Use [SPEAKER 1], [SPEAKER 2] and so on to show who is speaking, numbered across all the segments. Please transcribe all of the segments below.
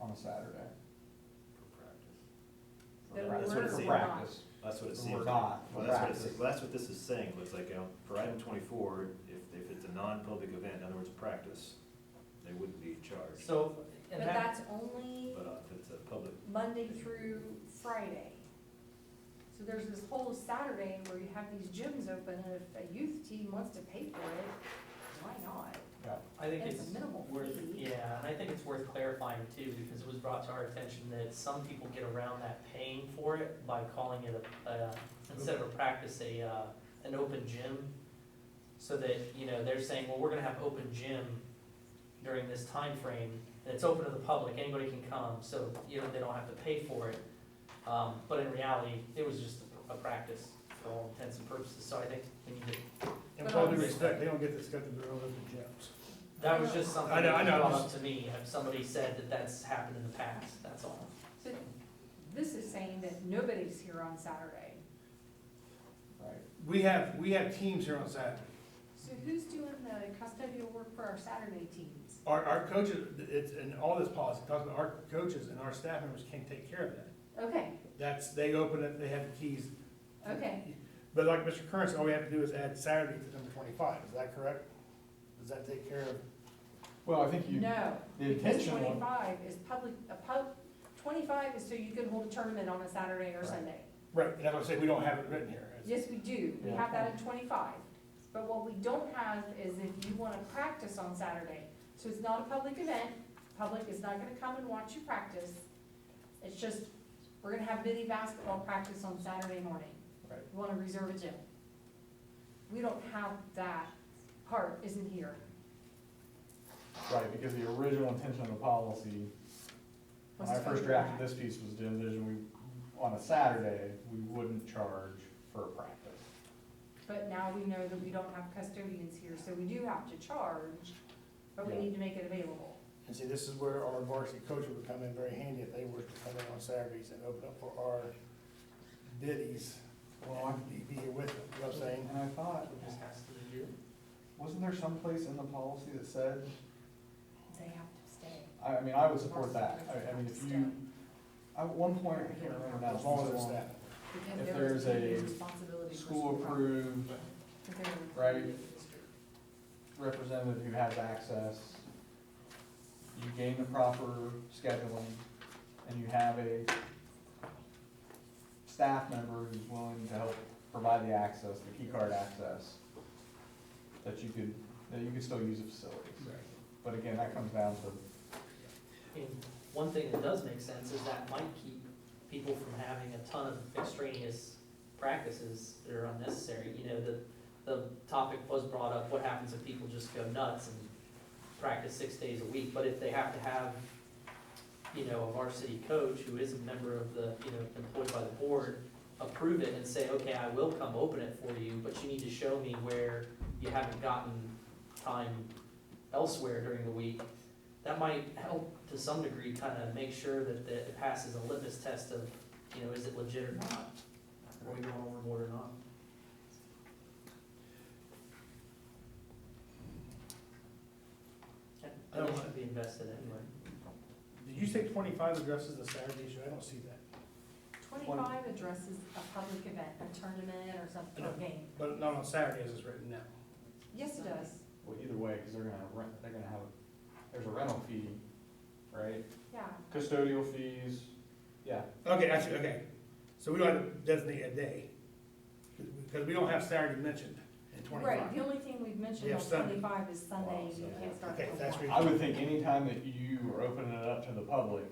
[SPEAKER 1] on a Saturday.
[SPEAKER 2] Then
[SPEAKER 1] Right,
[SPEAKER 2] we're
[SPEAKER 1] sort of For
[SPEAKER 2] not.
[SPEAKER 1] practice.
[SPEAKER 3] That's what it
[SPEAKER 1] We're
[SPEAKER 3] seems.
[SPEAKER 1] not,
[SPEAKER 3] Well,
[SPEAKER 1] we're
[SPEAKER 3] that's what it
[SPEAKER 1] practicing.
[SPEAKER 3] seems- well, that's what this is saying, looks like, you know, for item twenty-four, if, if it's a non-public event, in other words, practice, they wouldn't be charged.
[SPEAKER 4] So,
[SPEAKER 2] But
[SPEAKER 4] and that,
[SPEAKER 2] that's only
[SPEAKER 3] But uh, if it's a public,
[SPEAKER 2] Monday through Friday. So there's this whole Saturday where you have these gyms open, and if a youth team wants to pay for it, why not?
[SPEAKER 4] I think
[SPEAKER 2] It's
[SPEAKER 4] it's
[SPEAKER 2] a minimal
[SPEAKER 4] worth,
[SPEAKER 2] fee.
[SPEAKER 4] yeah, and I think it's worth clarifying too, because it was brought to our attention that some people get around that paying for it by calling it a, uh, instead of a practice, a, uh, an open gym. So that, you know, they're saying, well, we're gonna have open gym during this time frame, and it's open to the public, anybody can come, so, you know, they don't have to pay for it. Um, but in reality, it was just a a practice for all intents and purposes, so I think we need to
[SPEAKER 5] And with all due respect, they don't get to schedule their own open gyms.
[SPEAKER 4] That was just something
[SPEAKER 5] I know-
[SPEAKER 4] that
[SPEAKER 5] I
[SPEAKER 4] you
[SPEAKER 5] know,
[SPEAKER 4] brought
[SPEAKER 5] just-
[SPEAKER 4] up to me, if somebody said that that's happened in the past, that's all.
[SPEAKER 2] So this is saying that nobody's here on Saturday.
[SPEAKER 1] Right.
[SPEAKER 5] We have, we have teams here on Saturday.
[SPEAKER 2] So who's doing the custodial work for our Saturday teams?
[SPEAKER 5] Our, our coaches, it's, and all this policy talks about our coaches and our staff members can't take care of that.
[SPEAKER 2] Okay,
[SPEAKER 5] That's, they open it, they have the keys.
[SPEAKER 2] okay.
[SPEAKER 5] But like Mr. Curran said, all we have to do is add Saturday to number twenty-five, is that correct? Does that take care of?
[SPEAKER 1] Well, I think you,
[SPEAKER 2] No,
[SPEAKER 1] the
[SPEAKER 2] because
[SPEAKER 1] intention was,
[SPEAKER 2] twenty-five is public, a pub, twenty-five is so you can hold a tournament on a Saturday or
[SPEAKER 1] Right.
[SPEAKER 2] Sunday.
[SPEAKER 5] Right, and that's what I'm saying, we don't have it written here.
[SPEAKER 2] Yes, we do, we
[SPEAKER 1] Yeah.
[SPEAKER 2] have that in twenty-five, but what we don't have is if you wanna practice on Saturday, so it's not a public event, public is not gonna come and watch you practice. It's just, we're gonna have mini basketball practice on Saturday morning.
[SPEAKER 1] Right.
[SPEAKER 2] We wanna reserve a gym. We don't have that part, isn't here.
[SPEAKER 1] right, because the original intention of the policy, when
[SPEAKER 2] Was
[SPEAKER 1] I
[SPEAKER 2] to
[SPEAKER 1] first
[SPEAKER 2] cover
[SPEAKER 1] drafted
[SPEAKER 2] that.
[SPEAKER 1] this piece was the envision we, on a Saturday, we wouldn't charge for a practice.
[SPEAKER 2] But now we know that we don't have custodians here, so we do have to charge, but we
[SPEAKER 1] Yeah.
[SPEAKER 2] need to make it available.
[SPEAKER 5] And see, this is where our varsity coaches would come in very handy if they were to come in on Saturdays and open up for our biddies. Well, I'd be be here with them, you know what I'm saying?
[SPEAKER 1] And I thought,
[SPEAKER 4] Just has to be you.
[SPEAKER 1] wasn't there some place in the policy that said,
[SPEAKER 2] They have to stay.
[SPEAKER 1] I, I mean, I would support that, I, I mean, if you, at one point, I can't remember now,
[SPEAKER 5] As long as
[SPEAKER 1] it's
[SPEAKER 5] it's
[SPEAKER 1] long.
[SPEAKER 5] that.
[SPEAKER 1] If there's a school approved right? representative who has access, you gain the proper scheduling, and you have a staff member who's willing to help provide the access, the key card access, that you could, that you could still use the facilities. But again, that comes down to,
[SPEAKER 4] And one thing that does make sense is that might keep people from having a ton of extraneous practices that are unnecessary. You know, the, the topic was brought up, what happens if people just go nuts and practice six days a week? But if they have to have, you know, a varsity coach who is a member of the, you know, employed by the board, approve it and say, okay, I will come open it for you, but you need to show me where you haven't gotten time elsewhere during the week, that might help to some degree kind of make sure that, that it passes a litmus test of, you know, is it legit or not? Are we going overboard or not? I think it should be invested anyway.
[SPEAKER 5] Did you say twenty-five addresses the Saturday issue? I don't see that.
[SPEAKER 2] Twenty-five addresses a public event, a tournament or something, or game.
[SPEAKER 5] But not on Saturdays it's written now.
[SPEAKER 2] Yes, it does,
[SPEAKER 1] well, either way, because they're gonna rent, they're gonna have, there's a rental fee, right?
[SPEAKER 2] yeah.
[SPEAKER 1] Custodial fees, yeah,
[SPEAKER 5] Okay, actually, okay. So we don't have to designate a day, because we don't have Saturday mentioned in
[SPEAKER 2] Right, the
[SPEAKER 5] twenty-five.
[SPEAKER 2] only thing we've mentioned
[SPEAKER 5] Yeah,
[SPEAKER 2] on
[SPEAKER 5] Sunday.
[SPEAKER 2] twenty-five is Sunday,
[SPEAKER 1] Wow,
[SPEAKER 2] you
[SPEAKER 1] Sunday.
[SPEAKER 2] can't start
[SPEAKER 5] Okay,
[SPEAKER 2] till
[SPEAKER 5] that's
[SPEAKER 2] one.
[SPEAKER 5] re-
[SPEAKER 1] I would think anytime that you are opening it up to the public,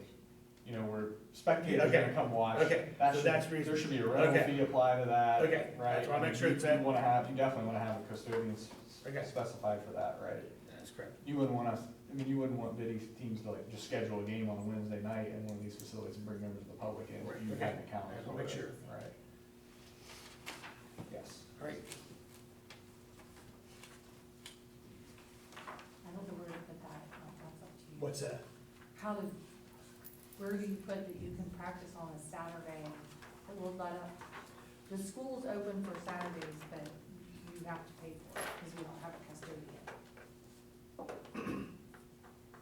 [SPEAKER 1] you know, where spectators are
[SPEAKER 5] Okay.
[SPEAKER 1] gonna come watch.
[SPEAKER 5] Okay,
[SPEAKER 1] That
[SPEAKER 5] so
[SPEAKER 1] should,
[SPEAKER 5] that's
[SPEAKER 1] there
[SPEAKER 5] reason.
[SPEAKER 1] should be a rental
[SPEAKER 5] Okay.
[SPEAKER 1] fee applied to that.
[SPEAKER 5] Okay,
[SPEAKER 1] Right?
[SPEAKER 5] that's why I make sure
[SPEAKER 1] You-
[SPEAKER 5] it's
[SPEAKER 1] You
[SPEAKER 5] that-
[SPEAKER 1] wanna have, you definitely wanna have a custodian s-
[SPEAKER 5] Okay.
[SPEAKER 1] specified for that, right?
[SPEAKER 5] That's correct.
[SPEAKER 1] You wouldn't want us, I mean, you wouldn't want biddy teams to like just schedule a game on a Wednesday night in one of these facilities and bring members of the public in,
[SPEAKER 5] Right,
[SPEAKER 1] you
[SPEAKER 5] okay.
[SPEAKER 1] have to count.
[SPEAKER 5] I'll make sure.
[SPEAKER 1] Right. Yes.
[SPEAKER 5] All right,
[SPEAKER 2] I don't know where to put that, that's up to you.
[SPEAKER 5] what's that?
[SPEAKER 2] How do, where do you put that you can practice on a Saturday? It will let up, the school's open for Saturdays, but you have to pay for it, because we don't have a